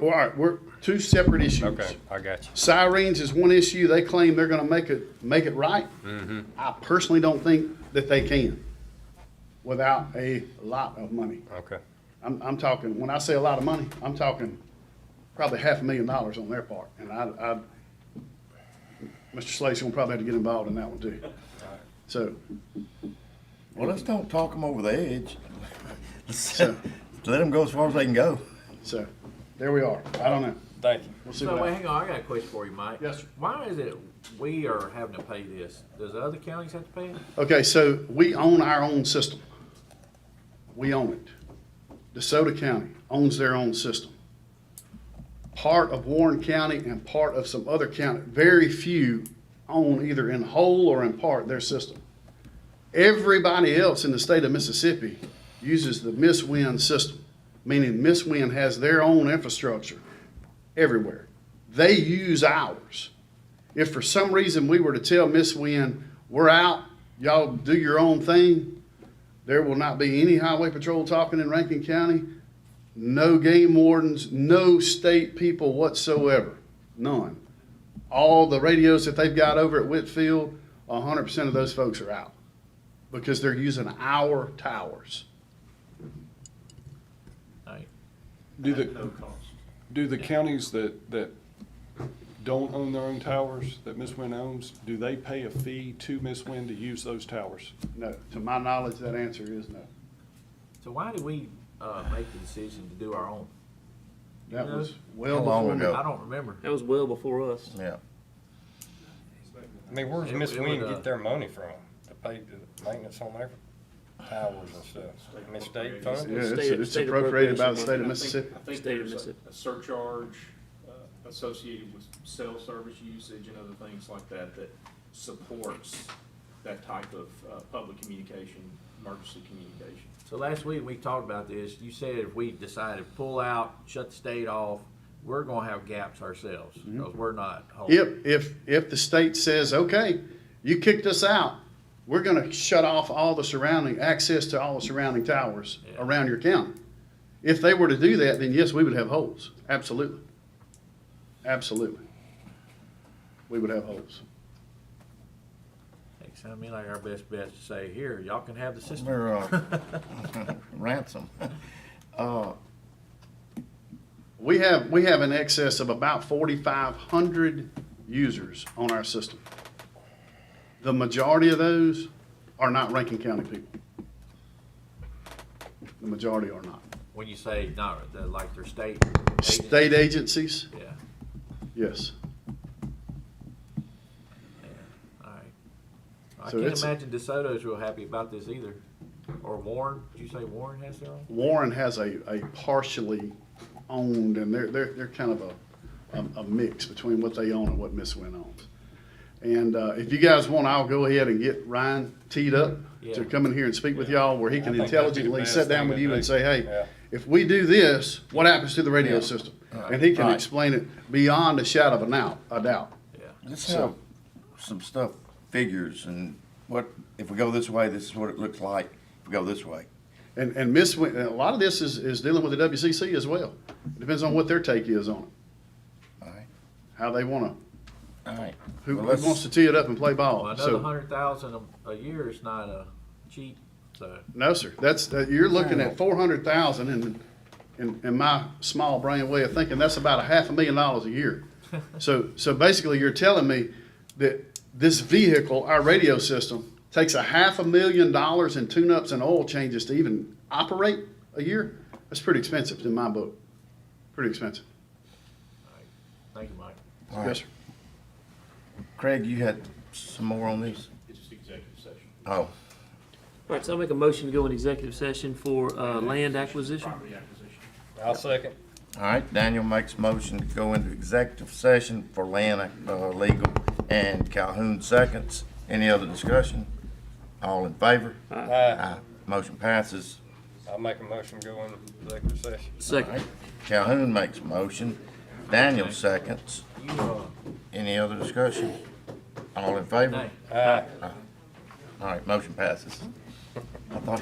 all right, we're two separate issues. Okay, I got you. Sirens is one issue. They claim they're gonna make it, make it right. I personally don't think that they can without a lot of money. Okay, I'm, I'm talking, when I say a lot of money, I'm talking probably half a million dollars on their part. And I, I, Mr. Slate's gonna probably have to get involved in that one too. So, Well, let's don't talk them over the edge. Let's So- Let them go as far as they can go. so, there we are. I don't know. thank you. We'll see So, what wait, happens. hang on, I got a question for you, Mike. Yes, sir. Why is it we are having to pay this? Does the other counties have to pay it? Okay, so we own our own system. We own it. DeSoto County owns their own system. Part of Warren County and part of some other county, very few own either in whole or in part their system. Everybody else in the state of Mississippi uses the Miss Win system, meaning Miss Win has their own infrastructure everywhere. They use ours. If for some reason we were to tell Miss Win, we're out, y'all do your own thing, there will not be any highway patrol talking in Rankin County, no game wardens, no state people whatsoever, none. All the radios that they've got over at Whitfield, hundred percent of those folks are out because they're using our towers. Like, Do the, do the counties that, that don't own their own towers, that Miss Wynn owns, do they pay a fee to Miss Wynn to use those towers? No, to my knowledge, that answer is no. So why do we, uh, make the decision to do our own? That was well How long before me. ago? I don't remember. That was well before us. Yeah. I mean, where's It- Miss it would, Wynn uh, get their money from? To pay the maintenance on their towers and stuff? I mean, state Yeah, funds? it's, State- it's state appropriated by the appropriation. state of I think- Mississippi. I think State of there's a- Mississippi. a surcharge uh, associated with cell service usage and other things like that that supports that type of uh, public communication, emergency communication. So last week, we talked about this. You said if we decided to pull out, shut the state off, we're gonna have gaps ourselves, because we're not whole. If, if, if the state says, okay, you kicked us out, we're gonna shut off all the surrounding, access to all the surrounding towers Yeah. around your county. If they were to do that, then yes, we would have holes, absolutely. Absolutely. We would have holes. It sounded to me like our best bet to say, here, y'all can have the system. They're, uh, ransom. Uh, We have, we have an excess of about forty-five hundred users on our system. The majority of those are not Rankin County people. The majority are not. When you say, not, they're like their state. agent. State agencies, Yeah, yes. all right. I So can't it's- imagine DeSoto's real happy about this either. Or Warren, did you say Warren has their own? Warren has a, a partially owned, and they're, they're, they're kind of a, a, a mix between what they own and what Miss Wynn owns. And, uh, if you guys want, I'll go ahead and get Ryan teed up Yeah. to come in here and speak with Yeah. y'all, where he I can think that'd be the intelligently best sit down thing with to you and do. say, Yeah. hey, if we do this, what happens to the radio Yeah. system? And he can Right. explain it beyond a shadow of a doubt, a doubt. Yeah. Let's So- have some stuff, figures and what, if we go this way, this is what it looks like. If we go this way. And, and Miss, Wynn- and a lot of this is, is dealing with the WCC as well. It Depends on what their take is on it, All right. how they wanna, All right. who, Well, who let's- wants to tee it up and play ball. Well, So- another hundred thousand a, a year is not a cheap, so. No, sir. That's, that- you're looking at four hundred thousand in, in, in my small brain way of thinking, that's about a half a million dollars a year. So, so basically you're telling me that this vehicle, our radio system, takes a half a million dollars in tune-ups and oil changes to even operate a year? That's pretty expensive in my book. Pretty expensive. Thank you, Mike. All right. Yes, sir. Craig, you had some more on these? It's just executive session. Oh, All right, so I'll make a motion to go in executive session for, uh, land acquisition. Property acquisition. I'll second. all right. Daniel makes motion to go into executive session for land, uh, legal and Calhoun seconds. Any other discussion? All in favor? Aye. Aye. Motion passes. I'll make a motion go in executive session. Second. Calhoun makes a motion. Daniel seconds. You, uh, Any other discussion? All in favor? Nay. Aye. All right, motion passes. I thought